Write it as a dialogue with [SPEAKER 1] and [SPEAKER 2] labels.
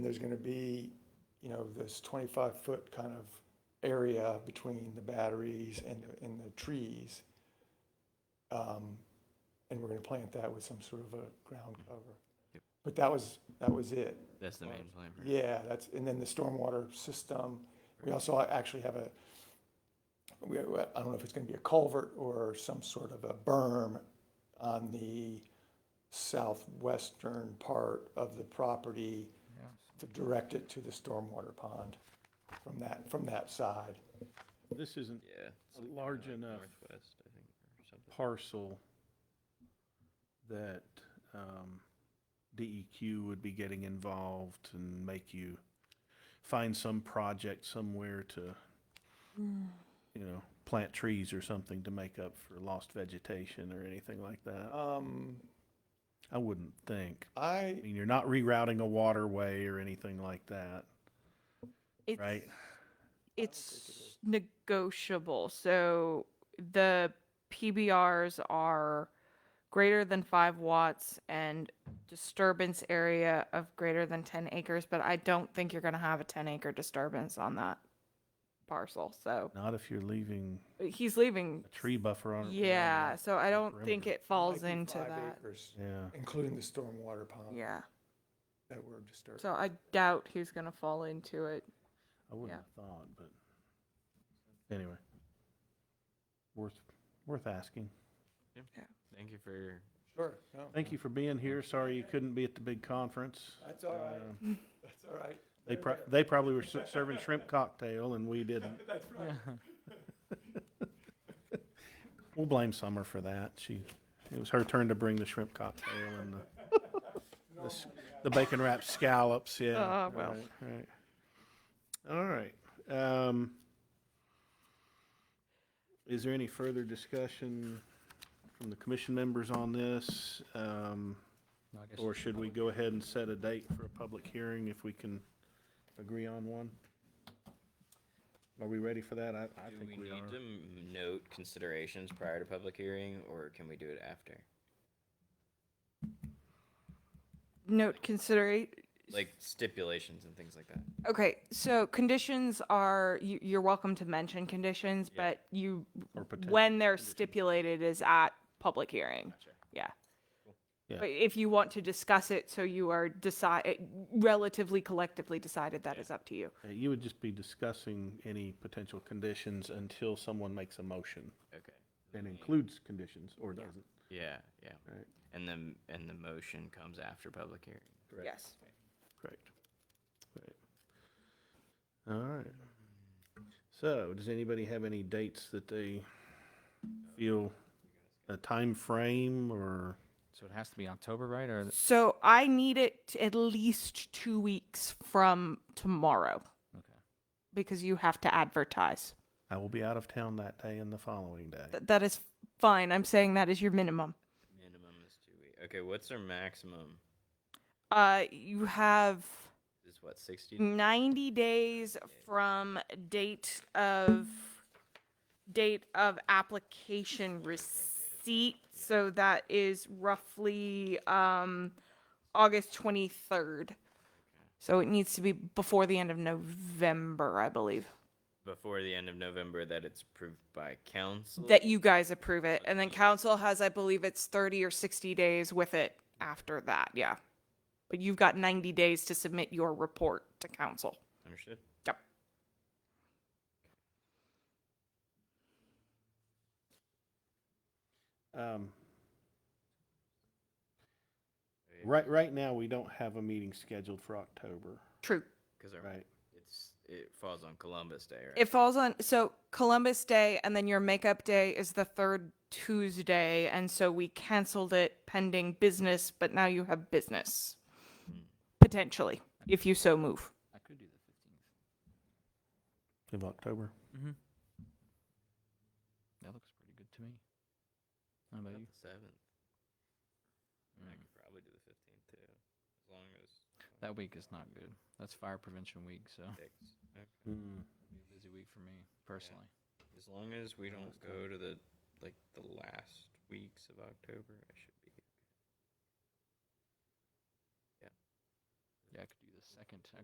[SPEAKER 1] And there's gonna be, you know, this twenty-five foot kind of area between the batteries and, the- and the trees. Um, And we're gonna plant that with some sort of a ground cover.
[SPEAKER 2] Yep.
[SPEAKER 1] But that was, that was it.
[SPEAKER 2] That's the
[SPEAKER 1] Well,
[SPEAKER 2] main plan. right?
[SPEAKER 1] Yeah, that's, and then the stormwater system, we also actually have a, we, I don't know if it's gonna be a culvert or some sort of a berm on the southwestern part of the property to direct it to the stormwater pond from that, from that side.
[SPEAKER 3] This isn't
[SPEAKER 2] Yeah. it's
[SPEAKER 3] a
[SPEAKER 2] like,
[SPEAKER 3] large
[SPEAKER 2] uh,
[SPEAKER 3] enough
[SPEAKER 2] Northwest, I think, or something.
[SPEAKER 3] parcel that um, DEQ would be getting involved and make you find some project somewhere to, you know, plant trees or something to make up for lost vegetation or anything like that.
[SPEAKER 1] Um,
[SPEAKER 3] I wouldn't think.
[SPEAKER 1] I,
[SPEAKER 3] I mean, you're not rerouting a waterway or anything like that,
[SPEAKER 4] It's,
[SPEAKER 3] right?
[SPEAKER 4] It's negotiable. So the PBRs are greater than five watts and disturbance area of greater than 10 acres, but I don't think you're going to have a 10 acre disturbance on that parcel. So
[SPEAKER 3] Not if you're leaving
[SPEAKER 4] he's leaving.
[SPEAKER 3] a tree buffer on. around
[SPEAKER 4] Yeah.
[SPEAKER 3] that.
[SPEAKER 4] So I don't think
[SPEAKER 3] perimeter.
[SPEAKER 4] it falls
[SPEAKER 1] might be
[SPEAKER 4] into
[SPEAKER 1] five
[SPEAKER 4] that.
[SPEAKER 1] acres,
[SPEAKER 3] Yeah.
[SPEAKER 1] Including the stormwater pond
[SPEAKER 4] Yeah.
[SPEAKER 1] that were disturbed.
[SPEAKER 4] So I doubt he's going to fall into it.
[SPEAKER 3] I wouldn't
[SPEAKER 4] Yeah.
[SPEAKER 3] have thought, but anyway. Worth, worth asking.
[SPEAKER 2] Thank you for
[SPEAKER 1] Sure, no,
[SPEAKER 3] Thank you for being here. Sorry you couldn't be at the big conference.
[SPEAKER 1] that's all right,
[SPEAKER 3] Um,
[SPEAKER 1] that's all right.
[SPEAKER 3] They pro- they probably were ser- serving shrimp cocktail and we didn't.
[SPEAKER 1] That's right.
[SPEAKER 3] We'll blame Summer for that. She, it was her turn to bring the shrimp cocktail and the, the s- the bacon wrapped scallops, yeah.
[SPEAKER 4] Ah, well.
[SPEAKER 3] Right. right. All right. Um, is there any further discussion from the commission members on this? Um, or should we go ahead and set a date for a public hearing if we can agree on one? Are we ready for that? I, I
[SPEAKER 2] Do
[SPEAKER 3] think
[SPEAKER 2] we
[SPEAKER 3] we
[SPEAKER 2] need
[SPEAKER 3] are.
[SPEAKER 2] to m- note considerations prior to public hearing, or can we do it after?
[SPEAKER 4] Note considerate
[SPEAKER 2] Like stipulations and things like that.
[SPEAKER 4] Okay, so conditions are, you, you're welcome to mention conditions,
[SPEAKER 2] Yeah.
[SPEAKER 4] but you,
[SPEAKER 3] Or potential
[SPEAKER 4] when they're stipulated is at public hearing.
[SPEAKER 2] Gotcha.
[SPEAKER 4] Yeah.
[SPEAKER 3] Yeah.
[SPEAKER 4] But if you want to discuss it, so you are decide, relatively collectively decided, that is up to you.
[SPEAKER 3] Uh, You would just be discussing any potential conditions until someone makes a motion
[SPEAKER 2] Okay.
[SPEAKER 3] that includes conditions or doesn't.
[SPEAKER 2] Yeah, yeah.
[SPEAKER 3] Right.
[SPEAKER 2] And then, and the motion comes after public hearing.
[SPEAKER 3] Correct.
[SPEAKER 4] Yes.
[SPEAKER 3] Correct. Right. All right. So, does anybody have any dates that they feel a time frame or?
[SPEAKER 5] So it has to be October, right? Or th-
[SPEAKER 4] So I need it at least two weeks from tomorrow
[SPEAKER 5] okay.
[SPEAKER 4] because you have to advertise.
[SPEAKER 3] I will be out of town that day and the following day.
[SPEAKER 4] Th- That is fine. I'm saying that is your minimum.
[SPEAKER 2] Minimum is two weeks. Okay, what's our maximum?
[SPEAKER 4] Uh, you have
[SPEAKER 2] Is what, sixty?
[SPEAKER 3] Mm.
[SPEAKER 4] 90 days from date of, date of application receipt. So that is roughly um August 23rd. So it needs to be before the end of November, I believe,
[SPEAKER 2] Before the end of November that it's approved by council?
[SPEAKER 4] that you guys approve it. And then council has, I believe it's 30 or 60 days with it after that, yeah. But you've got 90 days to submit your report to council.
[SPEAKER 2] Understood?
[SPEAKER 4] Yep.
[SPEAKER 3] Um, Right, right now, we don't have a meeting scheduled for October,
[SPEAKER 4] True.
[SPEAKER 2] Because
[SPEAKER 3] right?
[SPEAKER 2] it's, it falls on Columbus Day, right?
[SPEAKER 4] It falls on so Columbus Day and then your makeup day is the third Tuesday and so we canceled it pending business but now you have business potentially if you so move.
[SPEAKER 5] I could do the
[SPEAKER 3] Of October.
[SPEAKER 5] 15th. Mm-hmm. That looks pretty good to me. How
[SPEAKER 2] How
[SPEAKER 5] about
[SPEAKER 2] about
[SPEAKER 5] you?
[SPEAKER 2] the seventh. I could probably do the fifteenth too, as long as
[SPEAKER 5] That week is not good. That's fire prevention week, so it'll
[SPEAKER 2] six. Okay.
[SPEAKER 3] Hmm.
[SPEAKER 5] be a busy week for me personally.
[SPEAKER 2] As long as we don't go to the like the last weeks of October, I should be. Yeah.
[SPEAKER 5] Yeah, I could do the second. I